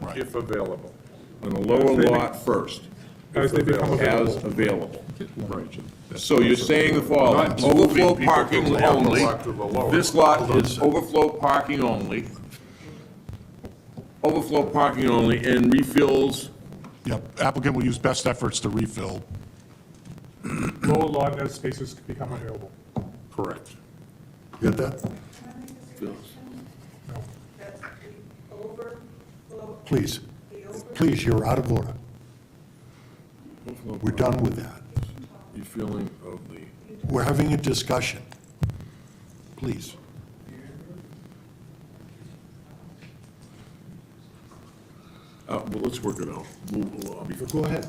Right. if available. On the lower As they- lot first, As they become as available. available. Right. So you're saying the following, Not moving overflow people parking from the upper only, lot to the lower. this lot is overflow parking only, overflow parking only, and refills, Yep, applicant will use best efforts to refill. Lower lot as spaces become available. correct. Get that? No. That's the overflow, Please, the over, please, you're out of order. We're done with that. Refilling of the, We're having a discussion. Please. uh, well, let's work it out. We'll- we'll, uh, be- Go ahead.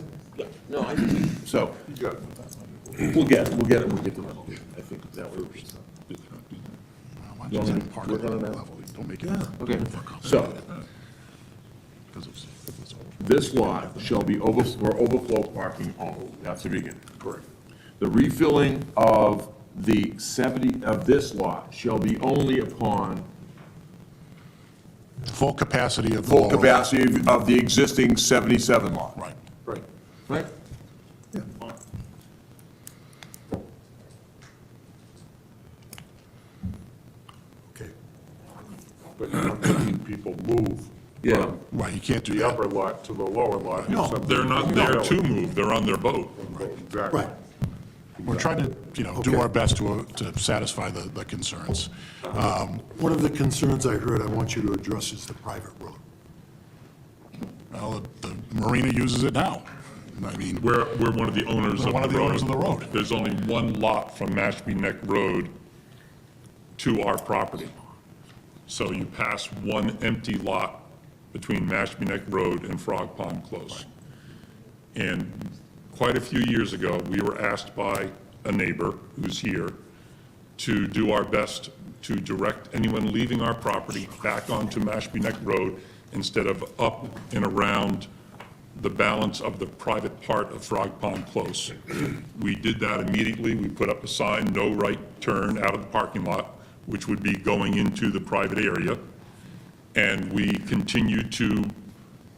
No, I think, we- so, You got it. we'll get, it, we'll get it, we'll get to that, I think that would. Don't Don't- make part of we're that gonna- level. Don't make it. Okay, so, this lot shall be over, or overflow parking only, that's the beginning. Correct. The refilling of the seventy, of this lot shall be only upon Full capacity of the full lower. capacity of- of the existing seventy-seven lot. Right. Right. Right? Okay. But you're not making people move Yeah. Right, you can't do the that. upper lot to the lower lot. if No, something- They're not there to move, they're on their boat. Exactly. Right. We're trying to, you know, do our best to, uh, to satisfy the, the concerns. Um, One of the concerns I heard I want you to address is the private road. Well, the marina uses it now. I mean, We're, we're one of the owners of the road. We're one of the owners of the road. There's only one lot from Mashpee Neck Road to our property. So you pass one empty lot between Mashpee Neck Road and Frog Pond Close. And quite a few years ago, we were asked by a neighbor who's here to do our best to direct anyone leaving our property back onto Mashpee Neck Road instead of up and around the balance of the private part of Frog Pond Close. We did that immediately. We put up a sign, no right turn out of the parking lot, which would be going into the private area. And we continue to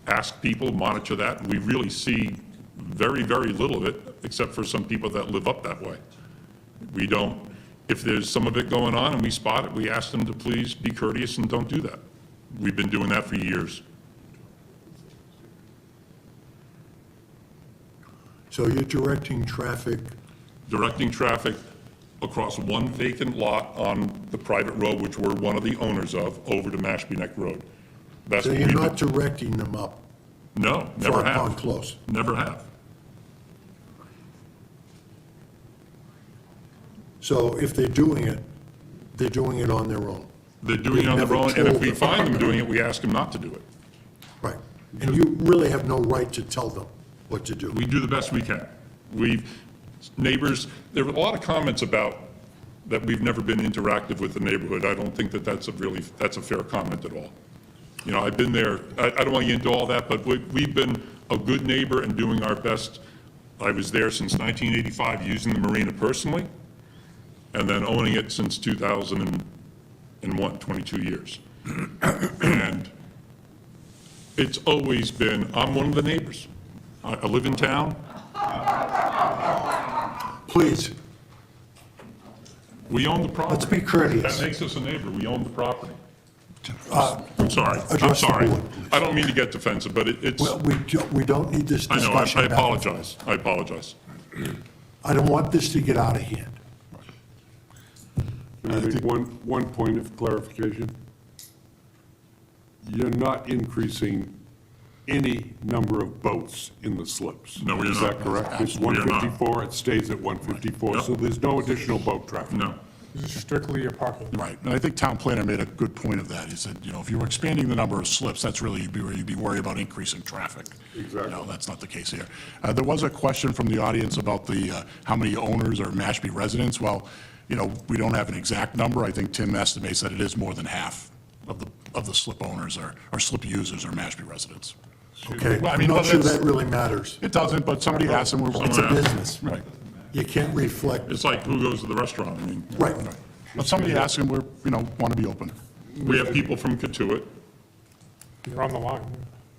ask people, monitor that. We really see very, very little of it, except for some people that live up that way. We don't, if there's some of it going on and we spot it, we ask them to please be courteous and don't do that. We've been doing that for years. So you're directing traffic, directing traffic across one vacant lot on the private road, which we're one of the owners of, over to Mashpee Neck Road. That's so what you're we've- not directing them up No, never Frog Pond have. Close. Never have. So if they're doing it, they're doing it on their own. They're doing it on their Never own, and if told we them. find them doing it, we ask them not to do it. Right. And you really have no right to tell them what to do. We do the best we can. We've, neighbors, there were a lot of comments about that we've never been interactive with the neighborhood. I don't think that that's a really, that's a fair comment at all. You know, I've been there, I, I don't want to get into all that, but we, we've been a good neighbor and doing our best. I was there since 1985, using the marina personally, and then owning it since 2001, 22 years. And it's always been, I'm one of the neighbors. I, I live in town, Please, we own the property. let's be courteous. That makes us a neighbor, we own the property. Uh, I'm sorry, I'm Address the sorry. board, please. I don't mean to get defensive, but it- it's, Well, we, do- we don't need this I know, I discussion. I back and apologize, I apologize. I don't want this to get out of hand. Can I make one, one point of clarification? You're not increasing any number of boats in the slips. No, we are Is not. that correct? It's Absolutely, we are not. 154, it stays at 154, Yep. so there's no additional boat traffic. No, This is strictly a parking Right, and I think town planner made a good point of that. He said, you know, if you were expanding the number of slips, that's really, you'd be, you'd be worried about increasing traffic. Exactly. No, that's not the case here. Uh, there was a question from the audience about the, uh, how many owners are Mashpee residents? Well, you know, we don't have an exact number. I think Tim estimates that it is more than half of the, of the slip owners or, or slip users are Mashpee residents. Okay, Well, I I'm mean, not whether sure it's- that really matters. It doesn't, but somebody asked and we're. It's a business. Right. You can't reflect, it's like who goes to the restaurant, I mean, right, But somebody asked and we're, you know, want to be open. we have people from Katuitt, You're on the line.